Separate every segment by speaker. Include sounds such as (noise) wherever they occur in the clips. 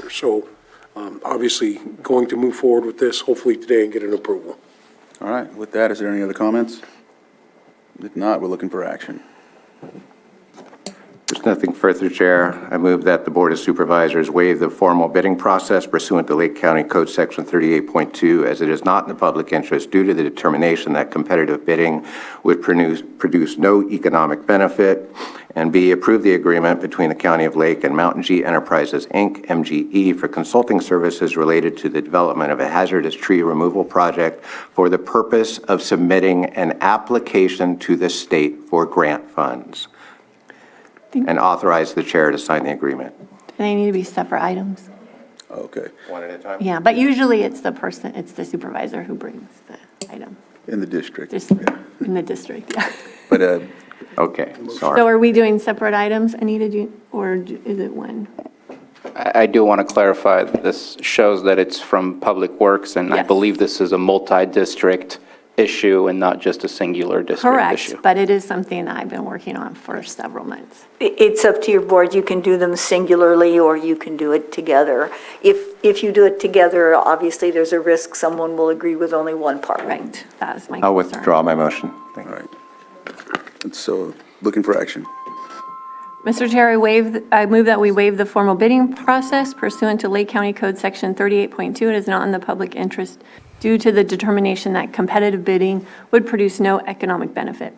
Speaker 1: year. So um, obviously, going to move forward with this, hopefully today, and get an approval.
Speaker 2: All right, with that, is there any other comments? If not, we're looking for action.
Speaker 3: There's nothing further, Chair. I move that the Board of Supervisors waive the formal bidding process pursuant to Lake County Code Section 38.2, as it is not in the public interest due to the determination that competitive bidding would produce produce no economic benefit, and B, approve the agreement between the County of Lake and Mountain G Enterprises, Inc., MGE, for consulting services related to the development of a hazardous tree removal project for the purpose of submitting an application to the state for grant funds and authorize the chair to sign the agreement.
Speaker 4: They need to be separate items.
Speaker 2: Okay.
Speaker 3: One at a time?
Speaker 4: Yeah, but usually it's the person, it's the supervisor who brings the item,
Speaker 2: In the district.
Speaker 4: just in the district, yeah.
Speaker 2: But uh,
Speaker 3: Okay, sorry.
Speaker 4: So are we doing separate items, Anita, do you- or do- is it one?
Speaker 5: I I do want to clarify, that this shows that it's from Public Works, and I
Speaker 4: Yes.
Speaker 5: believe this is a multi-district issue and not just a singular district issue.
Speaker 4: Correct, but it is something that I've been working on for several months.
Speaker 6: I- It's up to your board. You can do them singularly, or you can do it together. If, if you do it together, obviously, there's a risk someone will agree with only one part.
Speaker 4: Right, that is my concern.
Speaker 3: I'll withdraw my motion. Thank
Speaker 2: All
Speaker 3: you.
Speaker 2: right. And So, looking for action.
Speaker 4: Mr. Chair, I waive, I move that we waive the formal bidding process pursuant to Lake County Code Section 38.2. It is not in the public interest due to the determination that competitive bidding would produce no economic benefit.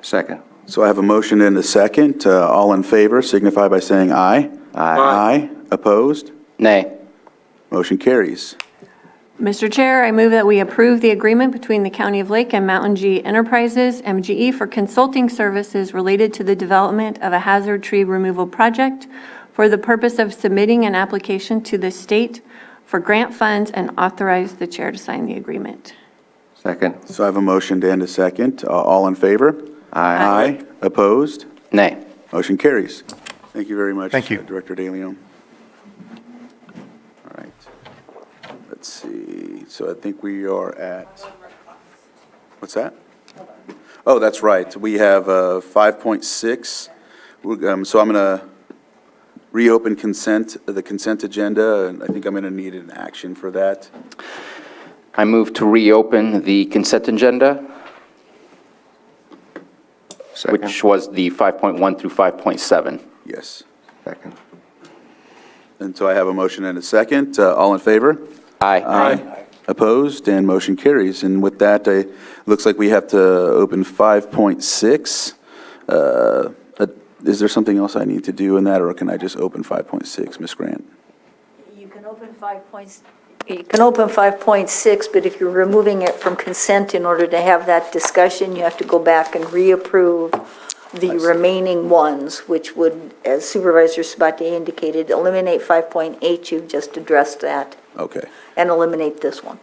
Speaker 3: Second.
Speaker 2: So I have a motion and a second. Uh, All in favor signify by saying aye. Aye. Opposed?
Speaker 5: Nay.
Speaker 2: Motion carries.
Speaker 4: Mr. Chair, I move that we approve the agreement between the County of Lake and Mountain G Enterprises, MGE, for consulting services related to the development of a hazard tree removal project for the purpose of submitting an application to the state for grant funds and authorize the chair to sign the agreement.
Speaker 3: Second.
Speaker 2: So I have a motion and a second. Uh, All in favor?
Speaker 3: Aye.
Speaker 2: Aye. Opposed?
Speaker 5: Nay.
Speaker 2: Motion carries. Thank you very much.
Speaker 7: Thank you.
Speaker 2: uh, Director De Leon. All right. Let's see, so I think we are at, what's that? Oh, that's right, we have uh, 5.6. We're, um, So I'm going to reopen consent, the consent agenda, and I think I'm going to need an action for that.
Speaker 5: I move to reopen the consent agenda,
Speaker 3: Second.
Speaker 5: which was the 5.1 through 5.7.
Speaker 2: Yes.
Speaker 3: Second.
Speaker 2: And so I have a motion and a second. Uh, All in favor?
Speaker 5: Aye.
Speaker 2: Opposed, and motion carries. And with that, it looks like we have to open 5.6. Uh, uh, Is there something else I need to do in that, or can I just open 5.6, Ms. Grant?
Speaker 6: You can open five points. You can open 5.6, but if you're removing it from consent in order to have that discussion, you have to go back and reapprove the remaining ones, which would, as Supervisor Sabatier indicated, eliminate 5.8, you've just addressed that,
Speaker 2: Okay.
Speaker 6: and eliminate this one.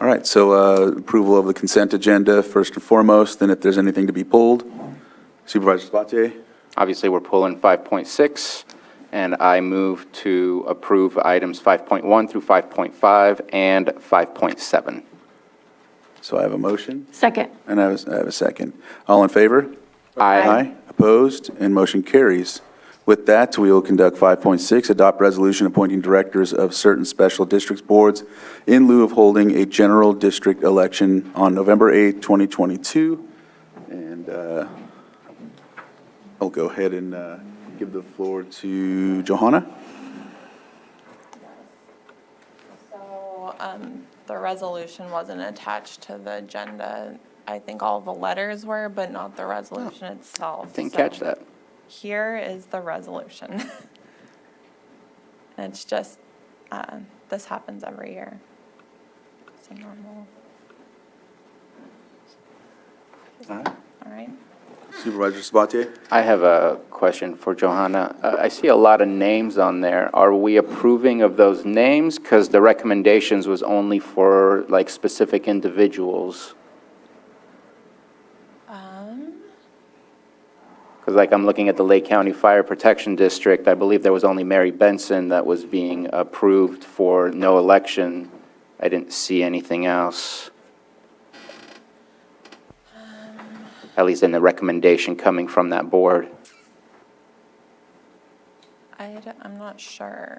Speaker 2: All right, so uh, approval of the consent agenda, first and foremost, and if there's anything to be pulled, Supervisor Spatier?
Speaker 5: Obviously, we're pulling 5.6, and I move to approve items 5.1 through 5.5 and 5.7.
Speaker 2: So I have a motion,
Speaker 4: Second.
Speaker 2: and I have a- I have a second. All in favor?
Speaker 5: Aye.
Speaker 2: Opposed, and motion carries. With that, we will conduct 5.6, adopt resolution appointing directors of certain special districts boards in lieu of holding a general district election on November 8, 2022. And uh, I'll go ahead and uh, give the floor to Johanna.
Speaker 8: So um, the resolution wasn't attached to the agenda. I think all the letters were, but not the resolution itself.
Speaker 5: Oh, Didn't
Speaker 8: So
Speaker 5: catch that.
Speaker 8: Here is the resolution. (laughs) And it's just, uh, this happens every year. It's a normal. All right.
Speaker 2: Supervisor Sabatier?
Speaker 5: I have a question for Johanna. Uh, I see a lot of names on there. Are we approving of those names? Because the recommendations was only for like specific individuals. Because like I'm looking at the Lake County Fire Protection District, I believe there was only Mary Benson that was being approved for no election. I didn't see anything else. At least in the recommendation coming from that board.
Speaker 8: I, d- I'm not sure.